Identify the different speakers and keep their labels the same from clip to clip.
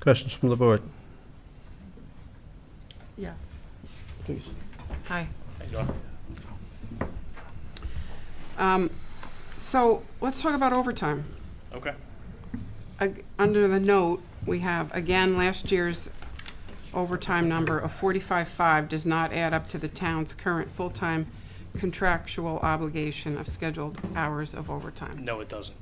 Speaker 1: Questions from the board?
Speaker 2: Yeah.
Speaker 1: Please.
Speaker 2: Hi. Um, So let's talk about overtime.
Speaker 3: Okay.
Speaker 2: Ag- Under the note, we have, again, last year's overtime number of 45.5 does not add up to the town's current full-time contractual obligation of scheduled hours of overtime.
Speaker 3: No, it doesn't.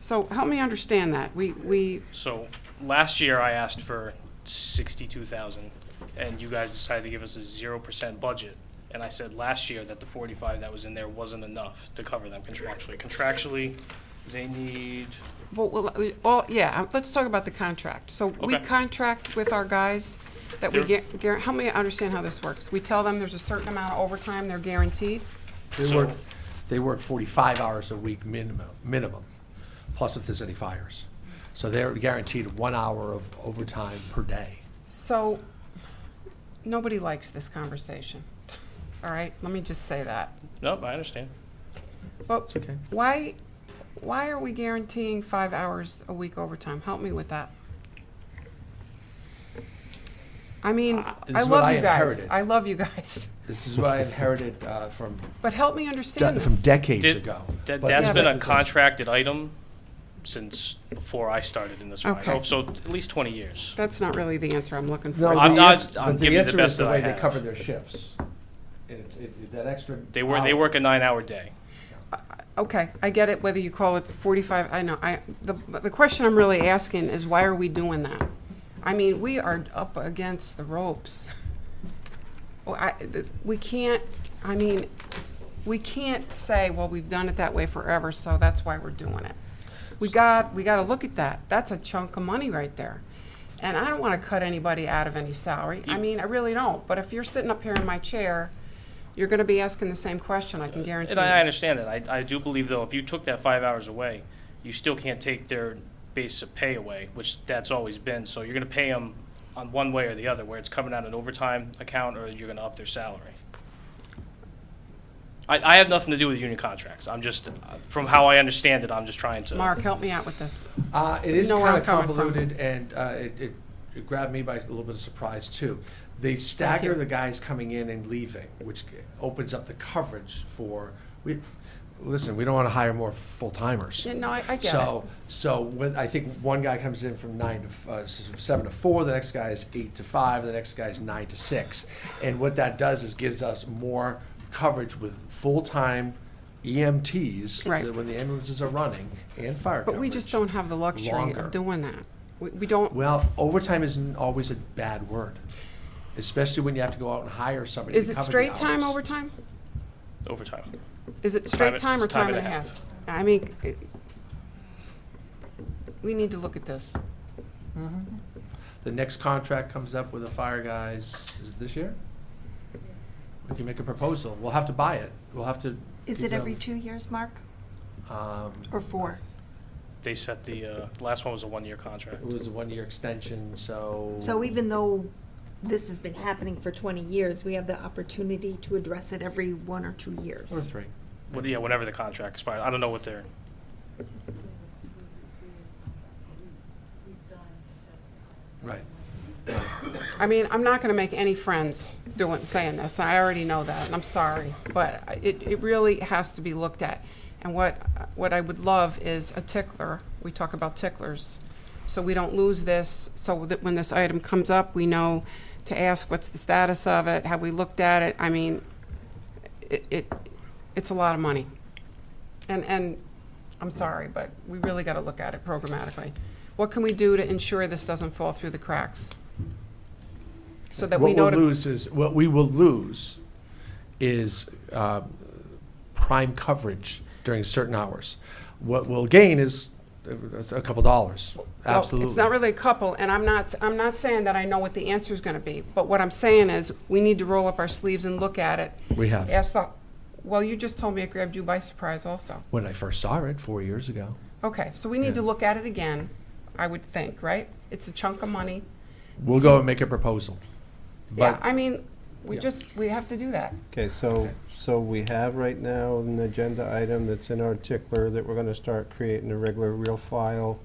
Speaker 2: So help me understand that. We, we,
Speaker 3: So last year I asked for sixty-two thousand, and you guys decided to give us a zero percent budget. And I said last year that the forty-five that was in there wasn't enough to cover them contractually. Contractually, they need,
Speaker 2: well, well, we- all, yeah, uh, let's talk about the contract. So we
Speaker 3: Okay.
Speaker 2: contract with our guys that we
Speaker 3: Sure.
Speaker 2: get, guar- help me understand how this works. We tell them there's a certain amount of overtime they're guaranteed?
Speaker 4: They
Speaker 3: So-
Speaker 4: work, they work 45 hours a week minimum, minimum, plus if there's any fires. So they're guaranteed one hour of overtime per day.
Speaker 2: So, nobody likes this conversation, all right? Let me just say that.
Speaker 3: nope, I understand.
Speaker 2: But
Speaker 4: okay.
Speaker 2: why, why are we guaranteeing five hours a week overtime? Help me with that. I mean,
Speaker 4: Ah, this
Speaker 2: I
Speaker 4: is what
Speaker 2: love
Speaker 4: I
Speaker 2: you guys.
Speaker 4: inherited.
Speaker 2: I love you guys.
Speaker 4: This is what I inherited uh, from,
Speaker 2: But help me
Speaker 4: de-
Speaker 2: understand
Speaker 4: from
Speaker 2: this.
Speaker 4: decades
Speaker 3: Did-
Speaker 4: ago.
Speaker 3: That,
Speaker 4: But-
Speaker 3: that's
Speaker 2: Yeah,
Speaker 3: been
Speaker 2: but-
Speaker 3: a contracted item since before I started in this line.
Speaker 2: Okay.
Speaker 3: Oh, So at least twenty years.
Speaker 2: That's not really the answer I'm looking
Speaker 4: No,
Speaker 2: for.
Speaker 4: the
Speaker 3: I'm not-
Speaker 4: ans-
Speaker 3: I'm
Speaker 4: but
Speaker 3: giving you the
Speaker 4: answer
Speaker 3: best
Speaker 4: is the
Speaker 3: that I
Speaker 4: way they
Speaker 3: have.
Speaker 4: cover their shifts. It's, it, that extra.
Speaker 3: They were, they
Speaker 4: hour-
Speaker 3: work a nine-hour day.
Speaker 2: Okay, I get it, whether you call it 45, I know, I, the, the question I'm really asking is why are we doing that? I mean, we are up against the ropes. Well, I, th- we can't, I mean, we can't say, well, we've done it that way forever, so that's why we're doing it. We got, we gotta look at that. That's a chunk of money right there. And I don't wanna cut anybody out of any salary. I mean, I really don't, but if you're sitting up here in my chair, you're gonna be asking the same question, I can guarantee
Speaker 3: Uh, And I, I
Speaker 2: you.
Speaker 3: understand that. I, I do believe though, if you took that five hours away, you still can't take their base of pay away, which that's always been. So you're gonna pay them on one way or the other, where it's coming out of an overtime account or you're gonna up their salary. I, I have nothing to do with union contracts. I'm just, uh, from how I understand it, I'm just trying to.
Speaker 2: Mark, help me out with this.
Speaker 4: Uh, it is
Speaker 2: know where
Speaker 4: kind
Speaker 2: I'm
Speaker 4: of
Speaker 2: coming from.
Speaker 4: convoluted, and uh, it, it, it grabbed me by a little bit of surprise too. They stagger
Speaker 2: you.
Speaker 4: the guys coming in and leaving, which opens up the coverage for we. Listen, we don't want to hire more full timers.
Speaker 2: Yeah, no, I, I get
Speaker 4: So, so when, I think one guy comes in from nine to, f- uh, s- seven to four, the next guy is eight to five, the next guy is nine to six. And what that does is gives us more coverage with full-time EMTs.
Speaker 2: Right.
Speaker 4: that When the ambulances are running and fire
Speaker 2: it. But we just
Speaker 4: coverage.
Speaker 2: don't have the luxury
Speaker 4: longer.
Speaker 2: of doing that. We, we don't,
Speaker 4: Well, overtime isn't always a bad word, especially when you have to go out and hire somebody
Speaker 2: is
Speaker 4: to
Speaker 2: it
Speaker 4: cover the
Speaker 2: straight time
Speaker 4: hours.
Speaker 2: overtime?
Speaker 3: Overtime.
Speaker 2: Is it straight
Speaker 3: and-
Speaker 2: time or
Speaker 3: it's time
Speaker 2: time and a
Speaker 3: and a
Speaker 2: half? I mean, it- we need to look at this.
Speaker 4: The next contract comes up with the fire guys, is it this year? We can make a proposal. We'll have to buy it. We'll have to.
Speaker 5: Is
Speaker 4: give
Speaker 5: it every
Speaker 4: them,
Speaker 5: two years, Mark,
Speaker 4: Um,
Speaker 5: or four?
Speaker 3: They set the, uh, last one was a one-year contract.
Speaker 4: it was a one-year extension, so.
Speaker 5: So even though this has been happening for 20 years, we have the opportunity to address it every one or two years.
Speaker 4: Or three.
Speaker 3: What- Yeah, whenever the contract expires. I don't know what they're,
Speaker 4: Right.
Speaker 2: I mean, I'm not gonna make any friends doing, saying this, I already know that, and I'm sorry, but I- it, it really has to be looked at. And what, what I would love is a tickler, we talk about ticklers, so we don't lose this, so that when this item comes up, we know to ask, what's the status of it, have we looked at it, I mean, it, it, it's a lot of money. And, and, I'm sorry, but we really gotta look at it programmatically. What can we do to ensure this doesn't fall through the cracks? So that we know
Speaker 4: What we'll
Speaker 2: to
Speaker 4: lose is, what we will lose is um, prime coverage during certain hours. What we'll gain is uh, a a couple dollars,
Speaker 2: Well,
Speaker 4: absolutely.
Speaker 2: It's not really a couple, and I'm not, I'm not saying that I know what the answer's gonna be, but what I'm saying is, we need to roll up our sleeves and look at it.
Speaker 4: We have.
Speaker 2: Ask the, well, you just told me it grabbed you by surprise also.
Speaker 4: When I first saw it four years ago.
Speaker 2: Okay, so we need to look at it again, I would think, right? It's a chunk of money.
Speaker 4: We'll go and make a proposal.
Speaker 2: Yeah,
Speaker 4: But
Speaker 2: I mean, we
Speaker 4: Yeah.
Speaker 2: just, we have to do that.
Speaker 1: Okay, so, so we have right now an agenda item that's in our tickler that we're gonna start creating a regular real file